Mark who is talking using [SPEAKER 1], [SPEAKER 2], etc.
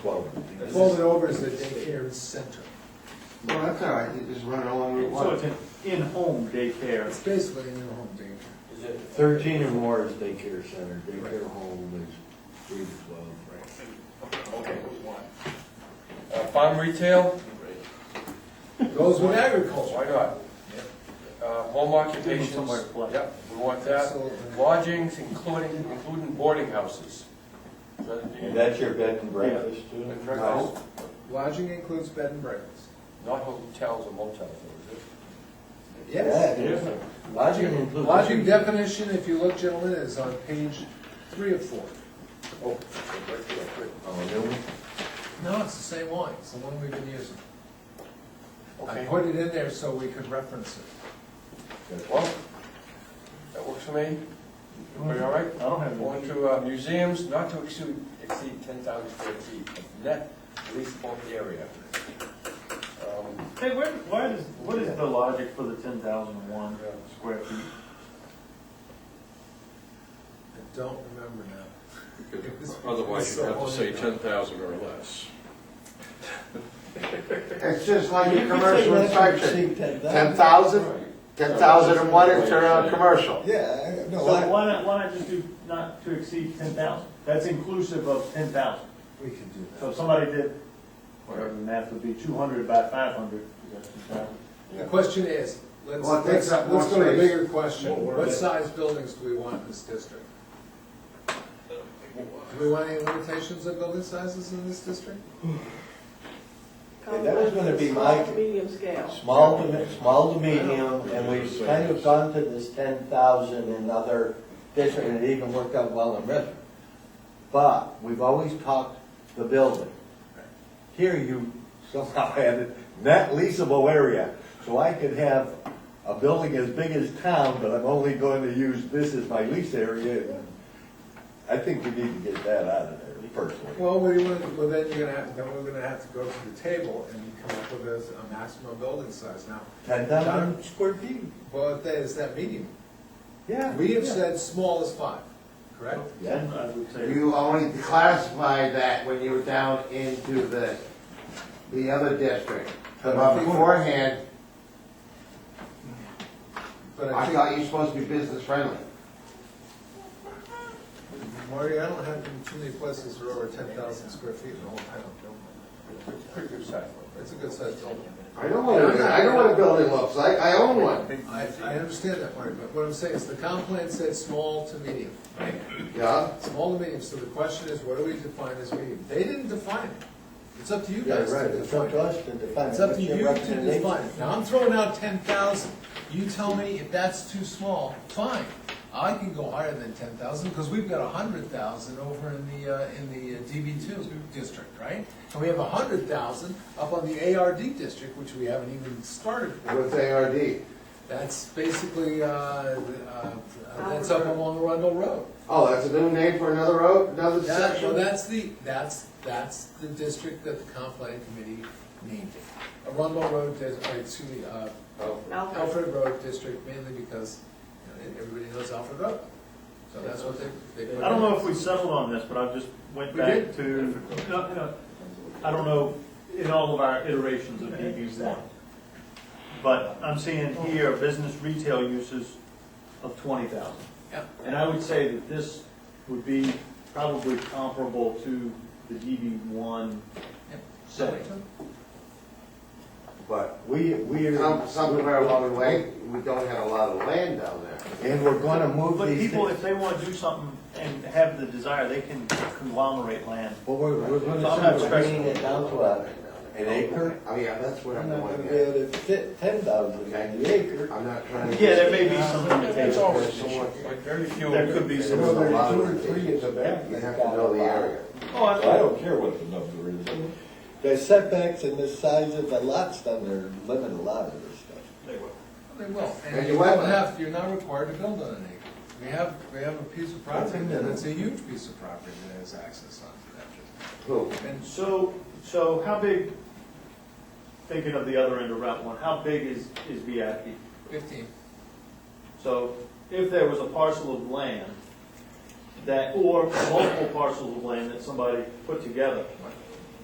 [SPEAKER 1] folded over is the daycare center.
[SPEAKER 2] Well, that's all right, you just run it along Route
[SPEAKER 3] So it's
[SPEAKER 2] One.
[SPEAKER 3] an in-home daycare.
[SPEAKER 1] It's basically in their home daycare.
[SPEAKER 4] Is it
[SPEAKER 5] Thirteen or more is daycare center, daycare home is three to twelve.
[SPEAKER 4] Okay. Uh, Farm retail,
[SPEAKER 1] Goes with agriculture.
[SPEAKER 4] why not? Uh, Home occupations.
[SPEAKER 3] somewhere to play.
[SPEAKER 4] Yep, we want that.
[SPEAKER 1] Absolutely.
[SPEAKER 4] Lodgings, including, including boarding houses. Is that it, Dan?
[SPEAKER 5] And that's your bed and breakfast too?
[SPEAKER 4] Bed and breakfast?
[SPEAKER 1] Lodging includes bed and breakfast.
[SPEAKER 4] Not hotels or motels, though, is it?
[SPEAKER 1] Yes.
[SPEAKER 5] Yeah, yeah. Lodging includes.
[SPEAKER 1] Lodging definition, if you look, gentlemen, is on page three of four.
[SPEAKER 4] Oh, okay, right there, great.
[SPEAKER 5] Oh, no,
[SPEAKER 1] No, it's the same one, it's the one we've been using. I
[SPEAKER 4] Okay,
[SPEAKER 1] put it in there so we could reference it.
[SPEAKER 4] well, that works for me. Everybody all right?
[SPEAKER 3] I don't have
[SPEAKER 4] Going
[SPEAKER 3] one.
[SPEAKER 4] to uh, museums, not to exceed, exceed ten thousand square feet of net leasable area. Um,
[SPEAKER 3] Hey, where, why does, what is the logic for the ten thousand one square feet?
[SPEAKER 1] I don't remember now.
[SPEAKER 6] Otherwise, you have to say ten thousand or less.
[SPEAKER 2] It's just like a commercial inspection. Ten
[SPEAKER 5] inspection.
[SPEAKER 2] thousand, ten thousand and one is uh, commercial.
[SPEAKER 7] Yeah, I- no,
[SPEAKER 3] So
[SPEAKER 7] I,
[SPEAKER 3] why not, why not just do not to exceed ten thousand? That's inclusive of ten thousand.
[SPEAKER 1] We can do that.
[SPEAKER 3] So if somebody did, whatever the math would be, two hundred by five hundred,
[SPEAKER 1] The question is, let's,
[SPEAKER 2] Well, it
[SPEAKER 1] let's,
[SPEAKER 2] takes up more
[SPEAKER 1] let's go to the
[SPEAKER 2] space.
[SPEAKER 1] bigger question. What size buildings do we want in this district? Do we want any limitations on building sizes in this district?
[SPEAKER 5] That was gonna be my-
[SPEAKER 8] Small, Medium scale.
[SPEAKER 5] Small to, me- small to medium, and we've kind of gone to this ten thousand in other districts, and it even worked out well in Richmond. But we've always talked the building. Here you somehow added net leasable area, so I could have a building as big as town, but I'm only going to use this as my lease area. I think we need to get that out of there personally.
[SPEAKER 1] Well, what do you want, well, then you're gonna have, then we're gonna have to go to the table and come up with a, a maximum building size now.
[SPEAKER 5] Ten thousand square feet.
[SPEAKER 1] Well, if that is that medium?
[SPEAKER 5] Yeah.
[SPEAKER 1] We have
[SPEAKER 5] yeah.
[SPEAKER 1] said small is five, correct?
[SPEAKER 5] Yeah.
[SPEAKER 3] I would say.
[SPEAKER 2] You only classified that when you were down into the, the other district. But beforehand,
[SPEAKER 1] But I
[SPEAKER 2] I
[SPEAKER 1] think,
[SPEAKER 2] thought you're supposed to be business friendly.
[SPEAKER 1] Marty, I don't have too many places that are over ten thousand square feet in the whole town.
[SPEAKER 4] Pretty good size.
[SPEAKER 1] It's a good size building.
[SPEAKER 2] I don't want, I know what a building looks like, I own one.
[SPEAKER 1] I, I understand that, Marty, but what I'm saying is the comp plan said small to medium.
[SPEAKER 2] Yeah,
[SPEAKER 1] Small to medium, so the question is, what do we define as medium? They didn't define it. It's up to you
[SPEAKER 5] Yeah,
[SPEAKER 1] guys
[SPEAKER 5] right,
[SPEAKER 1] to
[SPEAKER 5] it's up
[SPEAKER 1] define
[SPEAKER 5] to
[SPEAKER 1] it.
[SPEAKER 5] us to define.
[SPEAKER 1] It's up
[SPEAKER 5] What's
[SPEAKER 1] to you
[SPEAKER 5] your
[SPEAKER 1] to
[SPEAKER 5] recommendation?
[SPEAKER 1] define it. Now, I'm throwing out ten thousand, you tell me if that's too small, fine. I can go higher than ten thousand, because we've got a hundred thousand over in the, uh, in the DB two district, right? And we have a hundred thousand up on the ARD district, which we haven't even started with.
[SPEAKER 2] with ARD.
[SPEAKER 1] That's basically, uh, uh, that's up along Arundel Road.
[SPEAKER 2] Oh, that's a new name for another road, another
[SPEAKER 1] That, well,
[SPEAKER 2] section?
[SPEAKER 1] that's the, that's, that's the district that the comp plan committee named it. Arundel Road, dis- uh, excuse me, uh,
[SPEAKER 8] Alfred.
[SPEAKER 1] Alfred Road District mainly because, you know, everybody knows Alfred Road. So that's what they, they. put
[SPEAKER 3] I don't
[SPEAKER 1] in.
[SPEAKER 3] know if we settled on this, but I just went
[SPEAKER 1] We
[SPEAKER 3] back
[SPEAKER 1] did.
[SPEAKER 3] to, no, no, I don't know, in all of our iterations of DB one. But I'm seeing here, business retail uses of twenty thousand.
[SPEAKER 1] Yeah.
[SPEAKER 3] And I would say that this would be probably comparable to the DB one
[SPEAKER 1] Yep.
[SPEAKER 3] setting.
[SPEAKER 5] But we, we
[SPEAKER 2] Some-
[SPEAKER 5] are,
[SPEAKER 2] Somewhere along the way, we don't have a lot of land down there.
[SPEAKER 5] and we're gonna move
[SPEAKER 3] But
[SPEAKER 5] these
[SPEAKER 3] people,
[SPEAKER 5] things.
[SPEAKER 3] if they want to do something and have the desire, they can conglomerate land.
[SPEAKER 5] But we're, we're gonna,
[SPEAKER 3] I'm
[SPEAKER 5] start
[SPEAKER 3] not
[SPEAKER 5] bringing
[SPEAKER 3] stressing.
[SPEAKER 5] it down to a, an acre.
[SPEAKER 2] Oh, yeah, that's what
[SPEAKER 5] We're
[SPEAKER 2] I'm
[SPEAKER 5] not gonna
[SPEAKER 2] going
[SPEAKER 5] be
[SPEAKER 2] at.
[SPEAKER 5] able to fit ten thousand in the acre.
[SPEAKER 2] I'm not trying to.
[SPEAKER 3] Yeah, there may be some
[SPEAKER 4] It's
[SPEAKER 3] limitations.
[SPEAKER 4] always somewhat, but very few.
[SPEAKER 3] There could be
[SPEAKER 2] There's a
[SPEAKER 3] some.
[SPEAKER 2] lot
[SPEAKER 5] Two
[SPEAKER 2] of
[SPEAKER 5] or three is a
[SPEAKER 2] limitations.
[SPEAKER 5] bad-
[SPEAKER 2] You have to know the area.
[SPEAKER 3] Oh, I-
[SPEAKER 5] I don't care what the number is. The setbacks and the size of the lots down there limit a lot of this stuff.
[SPEAKER 1] They will, and
[SPEAKER 2] And
[SPEAKER 1] you
[SPEAKER 2] you
[SPEAKER 1] don't
[SPEAKER 2] went-
[SPEAKER 1] have, you're not required to build on an acre. We have, we have a piece of property,
[SPEAKER 5] That's in
[SPEAKER 1] and
[SPEAKER 5] there.
[SPEAKER 1] it's a huge piece of property that has access onto that.
[SPEAKER 2] Who?
[SPEAKER 1] And
[SPEAKER 3] So, so how big, thinking of the other end of Route One, how big is, is VIP?
[SPEAKER 1] fifteen,
[SPEAKER 3] So if there was a parcel of land that, or multiple parcels of land that somebody put together,